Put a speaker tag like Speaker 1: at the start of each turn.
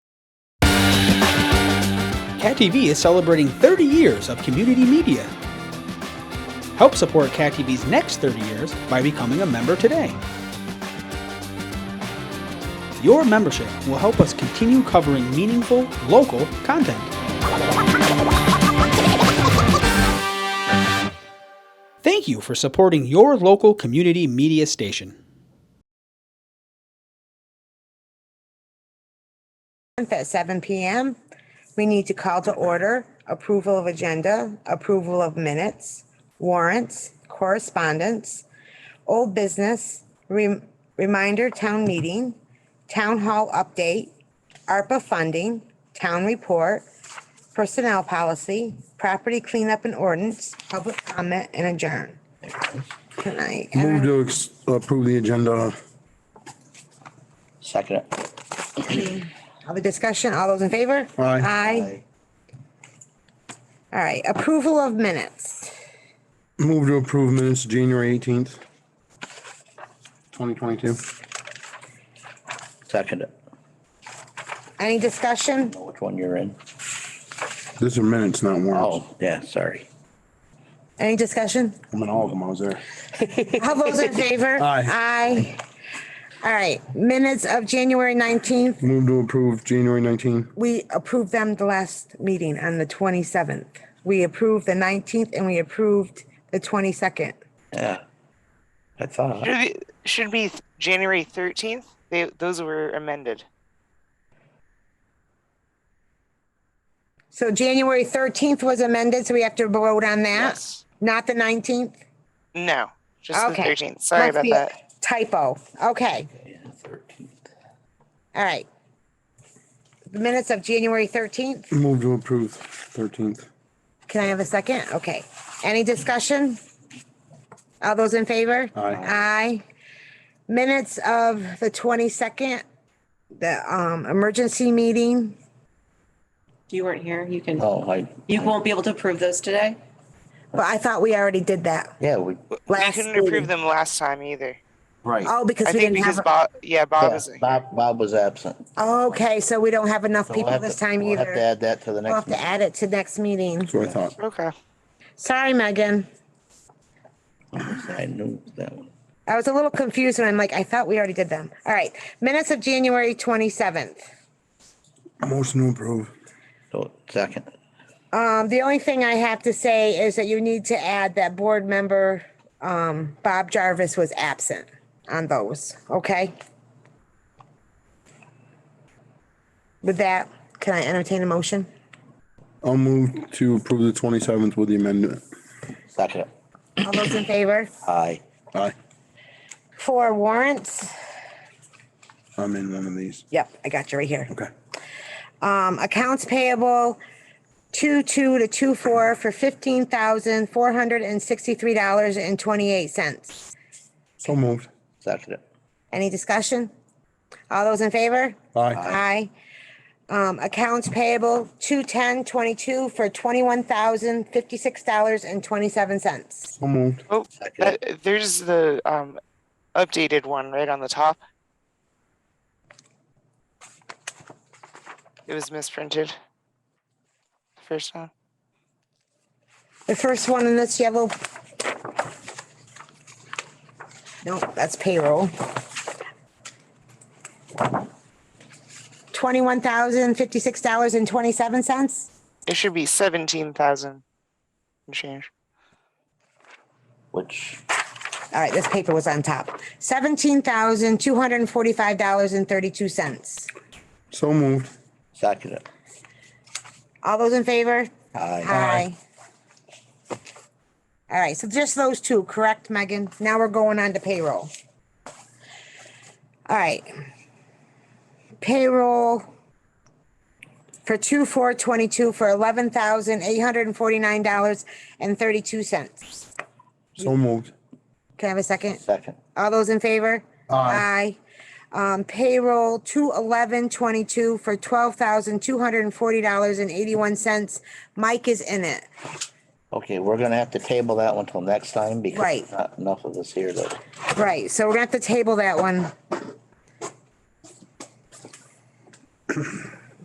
Speaker 1: Cat TV is celebrating 30 years of community media. Help support Cat TV's next 30 years by becoming a member today. Your membership will help us continue covering meaningful, local content. Thank you for supporting your local community media station.
Speaker 2: at 7 PM. We need to call to order approval of agenda, approval of minutes, warrants, correspondence, old business, rem- reminder town meeting, town hall update, ARPA funding, town report, personnel policy, property cleanup and ordinance, public comment, and adjourn. Can I,
Speaker 3: Move to ex- approve the agenda.
Speaker 4: Second it.
Speaker 2: have a discussion? All those in favor? Aye.
Speaker 3: Aye.
Speaker 2: All right, approval of minutes.
Speaker 3: Move to approve minutes, January eighteenth, twenty twenty-two.
Speaker 4: Second it.
Speaker 2: Any discussion?
Speaker 4: Know which one you're in.
Speaker 3: These are minutes, not warrants.
Speaker 4: Oh, yeah, sorry.
Speaker 2: Any discussion?
Speaker 3: I'm in all of them, I was there.
Speaker 2: All those in favor?
Speaker 3: Aye.
Speaker 2: Aye. All right, minutes of January nineteenth,
Speaker 3: Move to approve January nineteen.
Speaker 2: we approved them the last meeting on the twenty-seventh. We approved the nineteenth and we approved the twenty-second.
Speaker 4: Yeah. I thought.
Speaker 5: Should be, should be th- January 13th. They, those were amended.
Speaker 2: So January thirteenth was amended, so we have to vote on that,
Speaker 5: Yes.
Speaker 2: not the nineteenth?
Speaker 5: No, just
Speaker 2: Okay.
Speaker 5: the 13th. Sorry
Speaker 2: Must
Speaker 5: about
Speaker 2: be a
Speaker 5: that.
Speaker 2: Typo, okay,
Speaker 4: Yeah, 13th.
Speaker 2: all right. The minutes of January thirteenth?
Speaker 3: Move to approve thirteenth.
Speaker 2: Can I have a second? Okay. Any discussion? All those in favor?
Speaker 3: Aye.
Speaker 2: Aye. Minutes of the twenty-second, the um emergency meeting.
Speaker 6: You weren't here, you can,
Speaker 4: Oh, I,
Speaker 6: you won't be able to approve those today?
Speaker 2: But I thought we already did that.
Speaker 4: yeah, we,
Speaker 2: Last
Speaker 5: we couldn't
Speaker 2: meeting.
Speaker 5: approve them last time either.
Speaker 4: right.
Speaker 2: Oh,
Speaker 5: I
Speaker 2: because we
Speaker 5: think
Speaker 2: didn't
Speaker 5: because
Speaker 2: have,
Speaker 5: Bob, yeah, Bob
Speaker 4: Yeah,
Speaker 5: is.
Speaker 4: Bob, Bob was absent. So
Speaker 2: okay, so we don't have enough
Speaker 4: we'll
Speaker 2: people
Speaker 4: have
Speaker 2: this
Speaker 4: to-
Speaker 2: time
Speaker 4: we'll Have to
Speaker 2: either.
Speaker 4: add that to the
Speaker 2: We'll have
Speaker 4: next.
Speaker 2: to
Speaker 4: meeting.
Speaker 2: add it to next meeting.
Speaker 3: That's what I thought.
Speaker 5: Okay.
Speaker 2: Sorry, Megan.
Speaker 4: I knew that one.
Speaker 2: I was a little confused when I'm like, I thought we already did them. All right, minutes of January twenty-seventh.
Speaker 3: Motion to approve.
Speaker 4: So, second.
Speaker 2: Um, the only thing I have to say is that you need to add that board member, um, Bob Jarvis was absent on those, okay? With that, can I entertain a motion?
Speaker 3: I'll move to approve the twenty-seventh with the amendment.
Speaker 4: Second it.
Speaker 2: All those in favor?
Speaker 4: Aye.
Speaker 3: Aye.
Speaker 2: For warrants?
Speaker 3: I'm in one of these.
Speaker 2: Yep, I got you right here.
Speaker 3: Okay.
Speaker 2: Um, accounts payable, two-two to two-four for fifteen thousand, four hundred and sixty-three dollars and twenty-eight cents.
Speaker 3: So moved.
Speaker 4: Second it.
Speaker 2: Any discussion? All those in favor?
Speaker 3: Aye.
Speaker 2: Aye. Um, accounts payable, two ten twenty-two for twenty-one thousand fifty-six dollars and twenty-seven cents.
Speaker 3: So moved.
Speaker 5: Oh,
Speaker 4: Second
Speaker 5: that, there's the um, updated one right on the top. It was misprinted. The first one.
Speaker 2: The first one in this yellow. No, that's payroll. Twenty-one thousand fifty-six dollars and twenty-seven cents?
Speaker 5: It should be 17,000 and change.
Speaker 4: Which,
Speaker 2: All right, this paper was on top. Seventeen thousand two hundred and forty-five dollars and thirty-two cents.
Speaker 3: So moved.
Speaker 4: second it.
Speaker 2: All those in favor?
Speaker 4: Aye.
Speaker 2: Aye. All right, so just those two, correct, Megan? Now we're going on to payroll. All right. Payroll for two four twenty-two for eleven thousand eight hundred and forty-nine dollars and thirty-two cents.
Speaker 3: So moved.
Speaker 2: Can I have a second?
Speaker 4: Second.
Speaker 2: All those in favor?
Speaker 3: Aye.
Speaker 2: Aye. Um, payroll two eleven twenty-two for twelve thousand two hundred and forty dollars and eighty-one cents. Mike is in it.
Speaker 4: Okay, we're gonna have to table that one till next time because
Speaker 2: Right.
Speaker 4: there's not enough of us here to.
Speaker 2: Right, so we're gonna have to table that one.